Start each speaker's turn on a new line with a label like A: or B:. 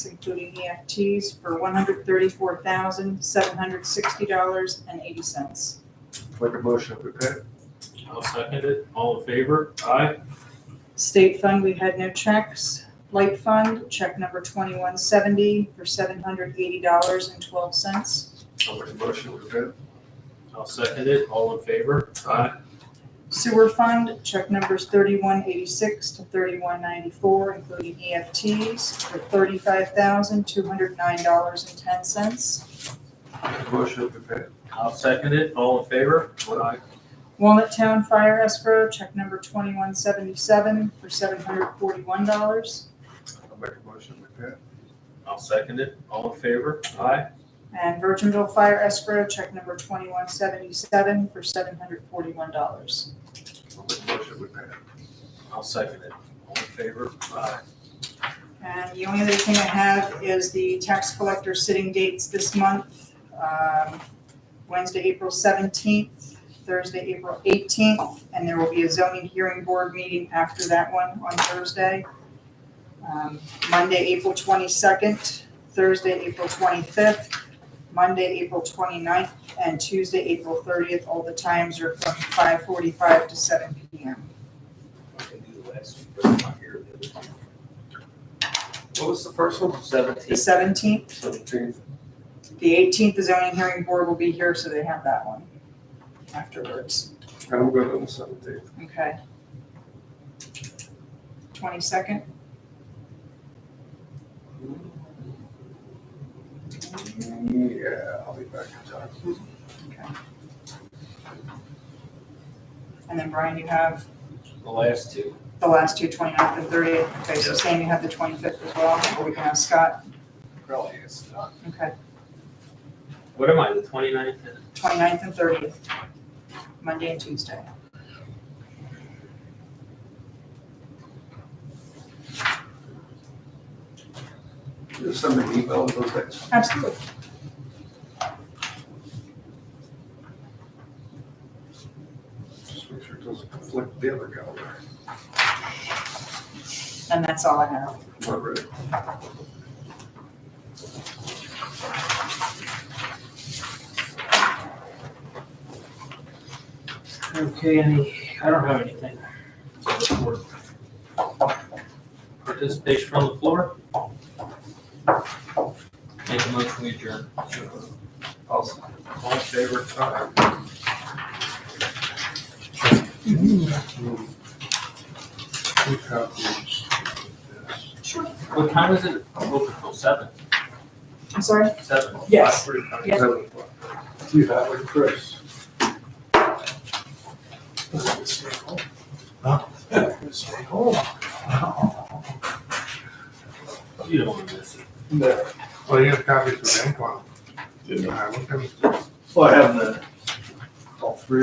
A: including EFTs, for one hundred thirty-four thousand, seven hundred sixty dollars and eighty cents.
B: Make a motion to pay.
C: I'll second it. All in favor? Aye.
A: State fund, we had no checks. Light fund, check number twenty-one seventy for seven hundred eighty dollars and twelve cents.
B: I'll make a motion to pay.
C: I'll second it. All in favor? Aye.
A: Sewer fund, check numbers thirty-one eighty-six to thirty-one ninety-four, including EFTs, for thirty-five thousand, two hundred nine dollars and ten cents.
B: Make a motion to pay.
C: I'll second it. All in favor? Aye.
A: Walnut Town Fire Escrow, check number twenty-one seventy-seven for seven hundred forty-one dollars.
B: I'll make a motion to pay.
C: I'll second it. All in favor? Aye.
A: And Virginville Fire Escrow, check number twenty-one seventy-seven for seven hundred forty-one dollars.
B: I'll make a motion to pay.
C: I'll second it. All in favor? Aye.
A: And the only other thing I have is the tax collector sitting dates this month. um, Wednesday, April seventeenth, Thursday, April eighteenth, and there will be a zoning hearing board meeting after that one on Thursday. Um, Monday, April twenty-second, Thursday, April twenty-fifth, Monday, April 29th, and Tuesday, April thirtieth. All the times are from five forty-five to seven P M.
D: I can do the last one, but I'm not here. What was the first one?
A: The
D: Seventeen.
A: seventeenth,
D: Seventeen.
A: The eighteenth, the zoning hearing board will be here, so they have that one afterwards,
B: I'm good on the seventeenth.
A: okay? Twenty-second,
B: Yeah, I'll be back in time.
A: and then Brian, you have
D: The last two.
A: the last two, 29th and thirtieth, okay, so Sam, you have the twenty-fifth as well, or we can have Scott,
D: Probably is not.
A: okay,
C: What am I, the 29th?
A: 29th and thirtieth, Monday and Tuesday.
B: Just send me an email with those dates.
A: Absolutely.
B: Just make sure it doesn't conflict with the other calendar.
A: And that's all I have.
B: Not ready.
C: Okay, any, I don't have anything. Participation from the floor? Make a motion, we adjourn.
B: Awesome.
C: All in favor?
B: All right. Two copies of this.
A: Sure.
C: What time is it? Open till seven,
A: I'm sorry?
C: seven.
A: Yes.
C: Five, three, five.
A: Yes.
B: You have it, Chris.
C: You don't want to miss it.
B: Well, you have copies of the ink one.
E: Didn't
B: I looked at it.
E: Well, I have the